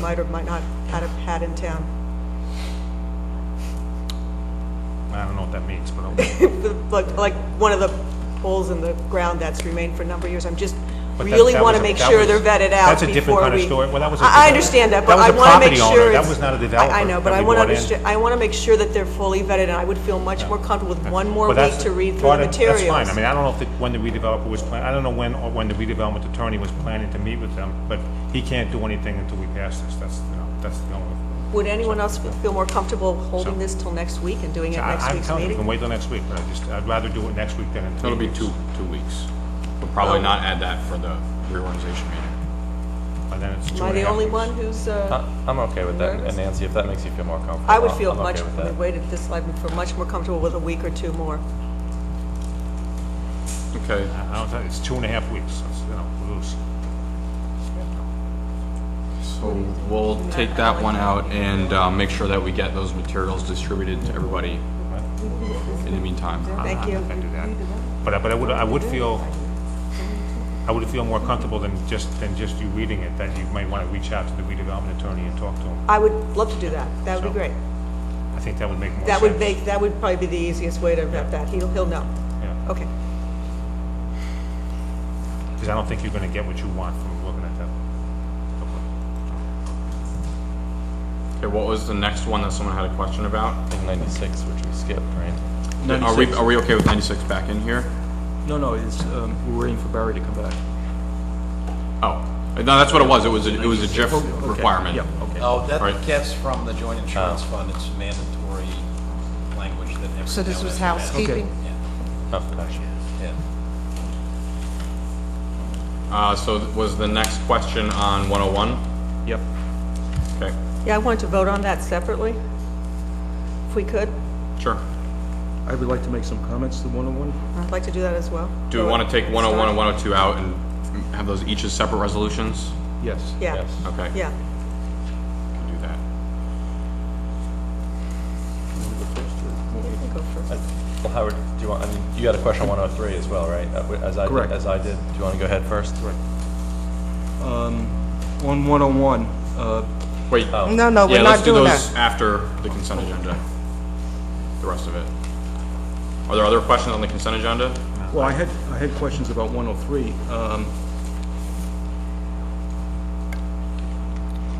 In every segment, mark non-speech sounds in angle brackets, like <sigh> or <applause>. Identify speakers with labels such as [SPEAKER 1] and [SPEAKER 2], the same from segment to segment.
[SPEAKER 1] might or might not had a had in town,
[SPEAKER 2] I don't know what that means, but I'll-
[SPEAKER 1] like, like one of the holes in the ground that's remained for a number of years. I'm just
[SPEAKER 2] But that-
[SPEAKER 1] really
[SPEAKER 2] that
[SPEAKER 1] want to
[SPEAKER 2] was a-
[SPEAKER 1] make
[SPEAKER 2] that
[SPEAKER 1] sure
[SPEAKER 2] was-
[SPEAKER 1] they're vetted out
[SPEAKER 2] that's
[SPEAKER 1] before
[SPEAKER 2] a
[SPEAKER 1] we...
[SPEAKER 2] different kind of story. Well, that was a
[SPEAKER 1] I I
[SPEAKER 2] different-
[SPEAKER 1] understand that,
[SPEAKER 2] that
[SPEAKER 1] but
[SPEAKER 2] was
[SPEAKER 1] I
[SPEAKER 2] a
[SPEAKER 1] want to make
[SPEAKER 2] property owner.
[SPEAKER 1] sure...
[SPEAKER 2] That
[SPEAKER 1] it's-
[SPEAKER 2] was not a
[SPEAKER 1] I- I
[SPEAKER 2] developer
[SPEAKER 1] know, but
[SPEAKER 2] that
[SPEAKER 1] I
[SPEAKER 2] we
[SPEAKER 1] want to
[SPEAKER 2] brought in.
[SPEAKER 1] understand, I want to make sure that they're fully vetted, and I would feel much more comfortable with one <laughs> more
[SPEAKER 2] Well,
[SPEAKER 1] week
[SPEAKER 2] that's-
[SPEAKER 1] to read through
[SPEAKER 2] part
[SPEAKER 1] the
[SPEAKER 2] of-
[SPEAKER 1] materials.
[SPEAKER 2] That's fine, I mean, I don't know if, the- when the redeveloper was planning, I don't know when, or when the redevelopment attorney was planning to meet with them, but he can't do anything until we pass this, that's, you know, that's the only.
[SPEAKER 1] Would anyone else feel more comfortable holding
[SPEAKER 2] So-
[SPEAKER 1] this till next week and doing it
[SPEAKER 2] I-
[SPEAKER 1] next
[SPEAKER 2] I'm
[SPEAKER 1] week's
[SPEAKER 2] telling you, we can
[SPEAKER 1] meeting?
[SPEAKER 2] wait till next week, but I just, I'd rather do it next week than in three
[SPEAKER 3] That'll be
[SPEAKER 2] weeks.
[SPEAKER 3] two, two weeks. We'll probably not add that for the reorganization meeting.
[SPEAKER 2] But then it's two
[SPEAKER 1] Am I
[SPEAKER 2] and
[SPEAKER 1] the
[SPEAKER 2] a half
[SPEAKER 1] only
[SPEAKER 2] weeks.
[SPEAKER 1] one who's, uh,
[SPEAKER 4] I- I'm okay with that,
[SPEAKER 1] Nervous?
[SPEAKER 4] and Nancy, if that makes you feel more comfortable.
[SPEAKER 1] I would
[SPEAKER 4] I'm-
[SPEAKER 1] feel
[SPEAKER 4] I'm okay
[SPEAKER 1] much,
[SPEAKER 4] with
[SPEAKER 1] I
[SPEAKER 4] that.
[SPEAKER 1] waited this, I'd feel much more comfortable with a week or two more.
[SPEAKER 3] Okay,
[SPEAKER 2] I don't, think- it's two and a half weeks, it's, you know, we lose.
[SPEAKER 3] so we'll take that one out and uh, make sure that we get those materials distributed to everybody in the meantime.
[SPEAKER 1] Thank
[SPEAKER 2] I'm
[SPEAKER 1] you.
[SPEAKER 2] not gonna do that. But, I- but I would, I would feel, I would feel more comfortable than just, than just you reading it, that you might wanna reach out to the redevelopment attorney and talk to him.
[SPEAKER 1] I would love to do that. That would be
[SPEAKER 2] So-
[SPEAKER 1] great.
[SPEAKER 2] I think that would make more sense.
[SPEAKER 1] That would make, that would probably be the easiest way to wrap that. He'll, he'll know. Okay.
[SPEAKER 2] Because I don't think you're gonna get what you want from looking at that.
[SPEAKER 3] Okay, what was the next one that someone had a question about?
[SPEAKER 4] I think 96, which we skipped, right?
[SPEAKER 3] Are we,
[SPEAKER 5] 96.
[SPEAKER 3] are we okay with 96 back in here?
[SPEAKER 5] No, no, it's, um, we're waiting for Barry to come back.
[SPEAKER 3] Oh, no, that's what it was. It was, a- it was a GIF
[SPEAKER 5] Oh, okay.
[SPEAKER 3] requirement.
[SPEAKER 5] Yeah, okay.
[SPEAKER 6] No,
[SPEAKER 3] Right.
[SPEAKER 6] Oh, that gets from the joint insurance
[SPEAKER 2] Oh.
[SPEAKER 6] fund, it's mandatory language that every town
[SPEAKER 7] So this was
[SPEAKER 6] has to manage.
[SPEAKER 7] housekeeping?
[SPEAKER 4] Oh, gotcha.
[SPEAKER 6] Yeah.
[SPEAKER 3] Uh, so was the next question on 101?
[SPEAKER 5] Yep.
[SPEAKER 3] Okay,
[SPEAKER 1] Yeah, I wanted to vote on that separately, if we could.
[SPEAKER 3] sure.
[SPEAKER 5] I would like to make some comments to 101.
[SPEAKER 1] I'd like to do that as well.
[SPEAKER 3] Do we want to take 101 and 102 out and have those each as separate resolutions?
[SPEAKER 5] Yes.
[SPEAKER 1] Yeah,
[SPEAKER 4] Yes.
[SPEAKER 3] Okay.
[SPEAKER 1] yeah.
[SPEAKER 3] Can do that.
[SPEAKER 1] You can go first.
[SPEAKER 4] Well, Howard, do you want, I mean, you had a question on 103 as well, right? Uh, w- As I, did-
[SPEAKER 5] Correct.
[SPEAKER 4] as I did, do you want to go ahead first? Right.
[SPEAKER 5] On 101, uh,
[SPEAKER 3] Wait.
[SPEAKER 7] No, no,
[SPEAKER 3] Yeah,
[SPEAKER 7] we're
[SPEAKER 3] let's
[SPEAKER 7] not
[SPEAKER 3] do
[SPEAKER 7] doing
[SPEAKER 3] those
[SPEAKER 7] that.
[SPEAKER 3] after the consent agenda. The rest of it. Are there other questions on the consent agenda?
[SPEAKER 5] well, I had, I had questions about 103. um,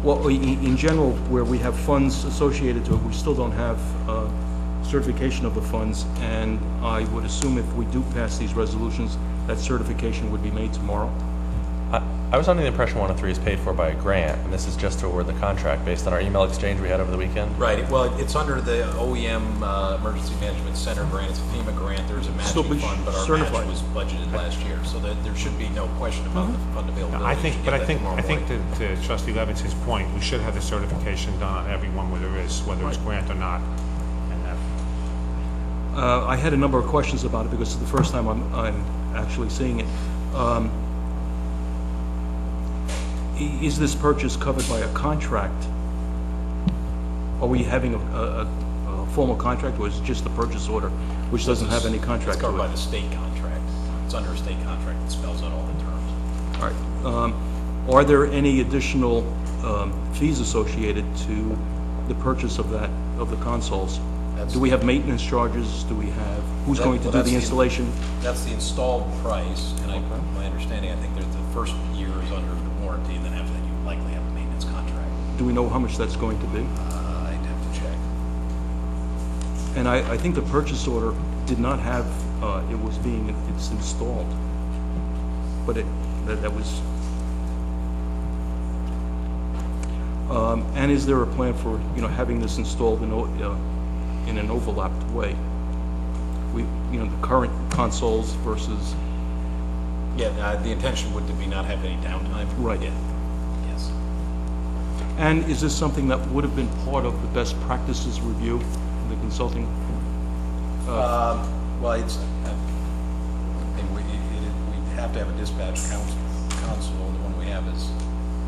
[SPEAKER 5] Well, i- in, in general, where we have funds associated to it, we still don't have uh, certification of the funds, and I would assume if we do pass these resolutions, that certification would be made tomorrow.
[SPEAKER 4] I I was under the impression 103 is paid for by a grant, and this is just to award the contract based on our email exchange we had over the weekend?
[SPEAKER 6] Right, well, it's under the OEM, uh, Emergency Management Center grant, it's a FEMA grant, there's a
[SPEAKER 5] Still
[SPEAKER 6] matching
[SPEAKER 5] be
[SPEAKER 6] fund, but our match
[SPEAKER 5] certified.
[SPEAKER 6] was budgeted last year, so that there should be no question about the fund availability.
[SPEAKER 2] Mm-hmm. I
[SPEAKER 6] You
[SPEAKER 2] think,
[SPEAKER 6] should
[SPEAKER 2] but
[SPEAKER 6] get
[SPEAKER 2] I
[SPEAKER 6] that
[SPEAKER 2] think,
[SPEAKER 6] tomorrow
[SPEAKER 2] I think
[SPEAKER 6] morning.
[SPEAKER 2] to to trustee Levinson's point, we should have the certification done on everyone, whether it's, whether it's grant or not. And that,
[SPEAKER 5] Uh, I had a number of questions about it because it's the first time I'm, I'm actually seeing it. Um, i- Is this purchase covered by a contract? Are we having a, a, a- a formal contract or is it just the purchase order, which doesn't have any
[SPEAKER 6] It's
[SPEAKER 5] contract to
[SPEAKER 6] covered by
[SPEAKER 5] it?
[SPEAKER 6] the state contract, it's under a state contract that spells out all the terms.
[SPEAKER 5] All right. Um, Are there any additional um, fees associated to the purchase of that, of the consoles? Do we have maintenance charges? Do we have, who's
[SPEAKER 6] That-
[SPEAKER 5] going to
[SPEAKER 6] well,
[SPEAKER 5] do
[SPEAKER 6] that's
[SPEAKER 5] the
[SPEAKER 6] the-
[SPEAKER 5] installation?
[SPEAKER 6] That's the installed price, and I, my understanding, I think there's the first year is under warranty, and then after that, you likely have a maintenance contract.
[SPEAKER 5] Do we know how much that's going to be?
[SPEAKER 6] Uh, I'd have to check.
[SPEAKER 5] And I, I think the purchase order did not have, uh, it was being, it's installed. But it, that, that was. Um, and is there a plan for, you know, having this installed in, o- uh, in an overlapped way? We, you know, the current consoles versus,
[SPEAKER 6] Yeah, uh, the intention would be not have any downtime.
[SPEAKER 5] Right.
[SPEAKER 6] Yeah. Yes.
[SPEAKER 5] and is this something that would have been part of the best practices review, the consulting?
[SPEAKER 6] Well, it's, uh, and we, it- it- we have to have a dispatch council, council, the one we have has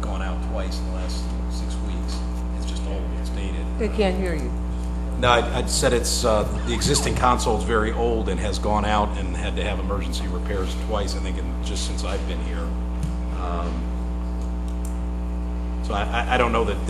[SPEAKER 6] gone out twice in the last six weeks. It's just old, it's dated.
[SPEAKER 7] They can't hear you.
[SPEAKER 6] No, I- I'd said it's, uh, the existing console's very old and has gone out and had to have emergency repairs twice, I think, in, just since I've been here. Um, So I, I- I don't know that